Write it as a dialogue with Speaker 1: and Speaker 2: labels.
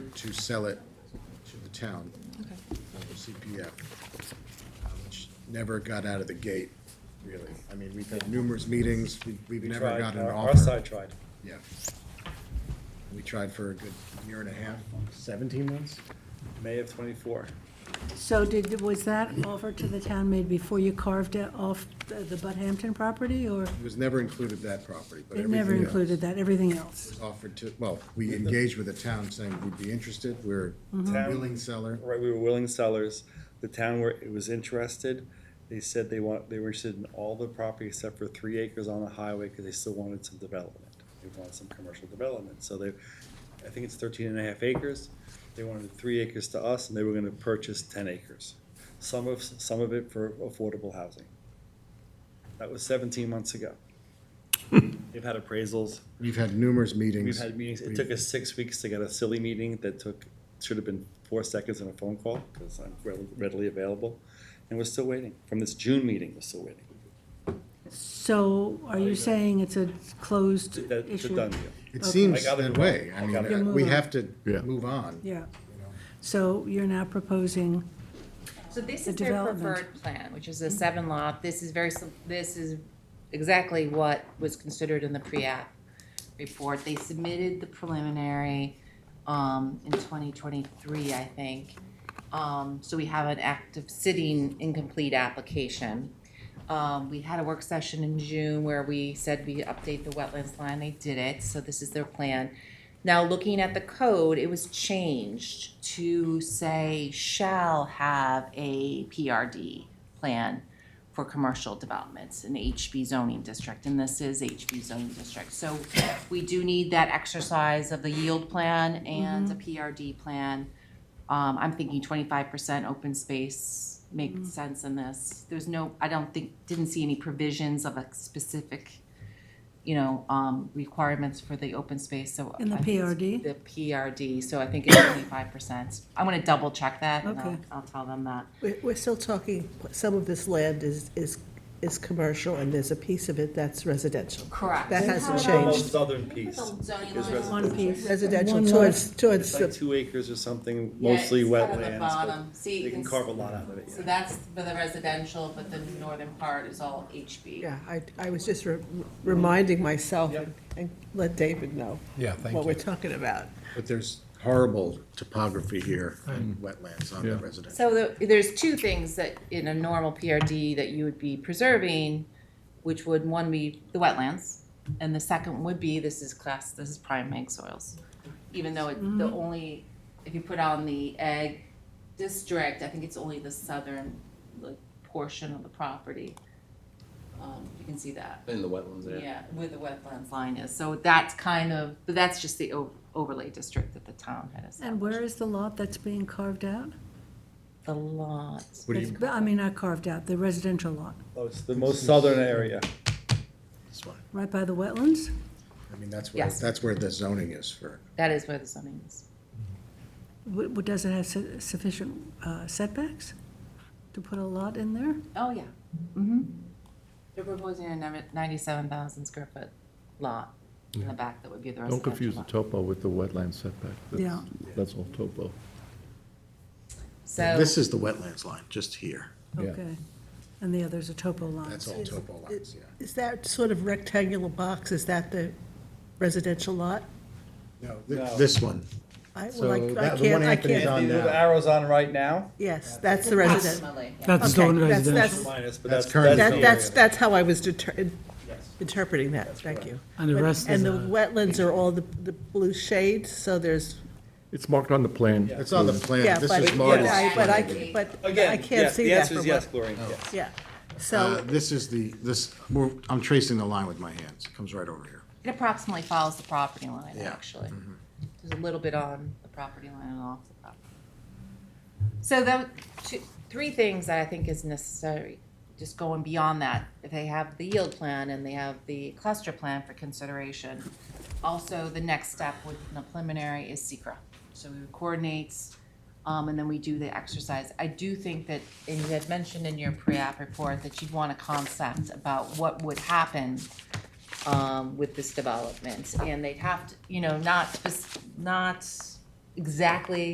Speaker 1: to sell it to the town,
Speaker 2: Okay.
Speaker 1: uh, the CPF, uh, which never got out of the gate, really. I mean, we've had numerous meetings, we- we've
Speaker 3: We
Speaker 1: never
Speaker 3: tried,
Speaker 1: got an
Speaker 3: our-
Speaker 1: offer.
Speaker 3: Our side tried.
Speaker 1: Yeah. We tried for a good year and a half, seventeen months?
Speaker 3: May of twenty-four.
Speaker 4: So did, was that offer to the town made before you carved it off the the Bud Hampton property, or
Speaker 1: It was never included that property, but
Speaker 4: it
Speaker 1: everything
Speaker 4: never
Speaker 1: else
Speaker 4: included that, everything else?
Speaker 1: was Offered to, well, we engaged with the town saying we'd be interested, we're a
Speaker 4: Mm-hmm.
Speaker 3: Town-
Speaker 1: willing seller.
Speaker 3: Right, we were willing sellers. The town were, it was interested. They said they want, they were interested in all the property except for three acres on the highway because they still wanted some development. They wanted some commercial development. So they, I think it's 13 and a half acres. They wanted three acres to us and they were going to purchase ten acres. Some of, some of it for affordable housing. That was seventeen months ago. They've had appraisals.
Speaker 1: We've had numerous meetings.
Speaker 3: We've had meetings, it
Speaker 1: We've-
Speaker 3: took us six weeks to get a silly meeting that took, should have been four seconds and a phone call, because I'm readily- readily available. And we're still waiting, from this June meeting, we're still waiting.
Speaker 4: So are you saying it's a closed
Speaker 3: That- It's a
Speaker 4: issue?
Speaker 3: done deal.
Speaker 1: It
Speaker 4: Okay.
Speaker 1: seems
Speaker 3: I got it
Speaker 1: that
Speaker 3: wrong.
Speaker 1: way.
Speaker 3: I
Speaker 1: I
Speaker 3: got it
Speaker 4: wrong.
Speaker 1: mean, we
Speaker 4: Move on.
Speaker 1: have to
Speaker 5: Yeah.
Speaker 1: move on.
Speaker 4: Yeah. So you're now proposing,
Speaker 2: So this
Speaker 4: The
Speaker 2: is their
Speaker 4: development. Mm-hmm.
Speaker 2: preferred plan, which is a seven lot. This is very, sim- this is exactly what was considered in the pre-app report. They submitted the preliminary um, in 2023, I think. Um, So we have an active sitting incomplete application. Um, We had a work session in June where we said we update the wetlands line. They did it, so this is their plan. Now, looking at the code, it was changed to say shall have a PRD plan for commercial developments in HB zoning district, and this is HB zoning district. So we do need that exercise of the yield plan and a PRD plan. Um, I'm thinking twenty-five percent open space
Speaker 4: Mm.
Speaker 2: makes sense in this. There's no, I don't think, didn't see any provisions of a specific, you know, um, requirements for the open space, so.
Speaker 4: In the
Speaker 2: I think it's
Speaker 4: PRD?
Speaker 2: The PRD, so I think it's twenty-five percent. I'm gonna double check that and I'll,
Speaker 4: Okay.
Speaker 2: I'll tell them that.
Speaker 6: We're, we're still talking, some of this land is, is, is commercial, and there's a piece of it that's residential.
Speaker 2: Correct.
Speaker 6: That hasn't
Speaker 3: The most
Speaker 6: changed.
Speaker 3: southern piece. is residential.
Speaker 4: one piece.
Speaker 6: Residential
Speaker 4: One
Speaker 6: towards, towards,
Speaker 3: It's like
Speaker 6: the
Speaker 3: two acres or something,
Speaker 2: Yeah, it's
Speaker 3: mostly
Speaker 2: kind of the
Speaker 3: wetlands, but
Speaker 2: bottom. See, you
Speaker 3: they
Speaker 2: can
Speaker 3: can
Speaker 2: s-
Speaker 3: carve a lot out of it,
Speaker 2: So
Speaker 3: yeah.
Speaker 2: that's for the residential, but the northern part is all HB.
Speaker 6: yeah, I, I was just re- reminding myself
Speaker 3: Yep.
Speaker 6: and let David know.
Speaker 7: Yeah, thank
Speaker 6: What we're
Speaker 7: you.
Speaker 6: talking about.
Speaker 1: But there's horrible topography here and wetlands on the
Speaker 7: Yeah.
Speaker 1: residential.
Speaker 2: So the- there's two things that in a normal PRD that you would be preserving, which would, one be the wetlands, and the second would be, this is class, this is prime mag soils. Even though it,
Speaker 4: Mm-hmm.
Speaker 2: the only, if you put on the ag district, I think it's only the southern, like, portion of the property. Um, you can see that.
Speaker 8: In the wetlands, yeah.
Speaker 2: Yeah, where the wetlands line is, so that's kind of, but that's just the o- overlay district that the town had established.
Speaker 4: and where is the lot that's being carved out?
Speaker 2: The lot,
Speaker 1: What do you,
Speaker 4: But, I mean, not carved out, the residential lot,
Speaker 3: Oh, It's the most southern area.
Speaker 1: that's fine.
Speaker 4: right by the wetlands?
Speaker 1: I mean, that's where,
Speaker 2: Yes.
Speaker 1: that's where the zoning is for,
Speaker 2: that is where the zoning is.
Speaker 4: W- w- Does it have su- sufficient uh, setbacks to put a lot in there?
Speaker 2: Oh, yeah. Mm-hmm. They're proposing a ninety-seven thousand square foot lot in the back that would be the
Speaker 5: Don't
Speaker 2: residential
Speaker 5: confuse the
Speaker 2: lot.
Speaker 5: topo with the wetland setback. That's-
Speaker 4: Yeah.
Speaker 5: That's all topo.
Speaker 2: So,
Speaker 1: this is the wetlands line, just here.
Speaker 5: Yeah.
Speaker 4: Okay. And the other's a topo line.
Speaker 1: That's all topo lines, yeah.
Speaker 6: Is that sort of rectangular box, is that the residential lot?
Speaker 1: No,
Speaker 3: No.
Speaker 1: thi- this one.
Speaker 6: I, well,
Speaker 1: So
Speaker 6: I I
Speaker 1: that- the one
Speaker 6: can't, I
Speaker 1: Anthony's
Speaker 6: can't,
Speaker 1: on
Speaker 3: The little
Speaker 1: now,
Speaker 3: arrows on right now,
Speaker 6: yes, that's the residential.
Speaker 2: ultimately, yeah.
Speaker 9: That's the
Speaker 6: Okay,
Speaker 9: one
Speaker 6: that's-
Speaker 9: residential.
Speaker 3: minus, but
Speaker 1: That's
Speaker 3: that's.
Speaker 1: current.
Speaker 3: the
Speaker 6: That,
Speaker 3: area.
Speaker 6: that's, that's how I was deter,
Speaker 3: Yes.
Speaker 6: interpreting that, thank you.
Speaker 9: And the
Speaker 6: But-
Speaker 9: rest is uh,
Speaker 6: And the
Speaker 9: a-
Speaker 6: wetlands are all the, the blue shades, so there's,
Speaker 5: It's marked on the plan.
Speaker 1: it's on the
Speaker 6: yeah,
Speaker 1: plan,
Speaker 6: but,
Speaker 1: this
Speaker 6: but
Speaker 1: is
Speaker 6: I,
Speaker 1: Marty's
Speaker 6: but I,
Speaker 1: plan.
Speaker 6: c- but I
Speaker 3: Again,
Speaker 6: can't
Speaker 3: yes,
Speaker 6: see
Speaker 3: the
Speaker 6: that
Speaker 3: answer
Speaker 6: for
Speaker 3: is yes,
Speaker 6: what,
Speaker 3: Gloria, yes.
Speaker 6: yeah.
Speaker 1: Uh,
Speaker 6: So,
Speaker 1: This is the, this, we're- I'm tracing the line with my hands, It comes right over here.
Speaker 2: It approximately follows the property line,
Speaker 1: Yeah.
Speaker 2: actually. There's a little bit on the property line and off the property. So the, two, three things that I think is necessary, just going beyond that. If they have the yield plan and they have the cluster plan for consideration. Also, the next step with the preliminary is secra. So we coordinate, um, and then we do the exercise. I do think that, and you had mentioned in your pre-app report that you'd want a concept about what would happen um, with this development, and they'd have to, you know, not, spec- not exactly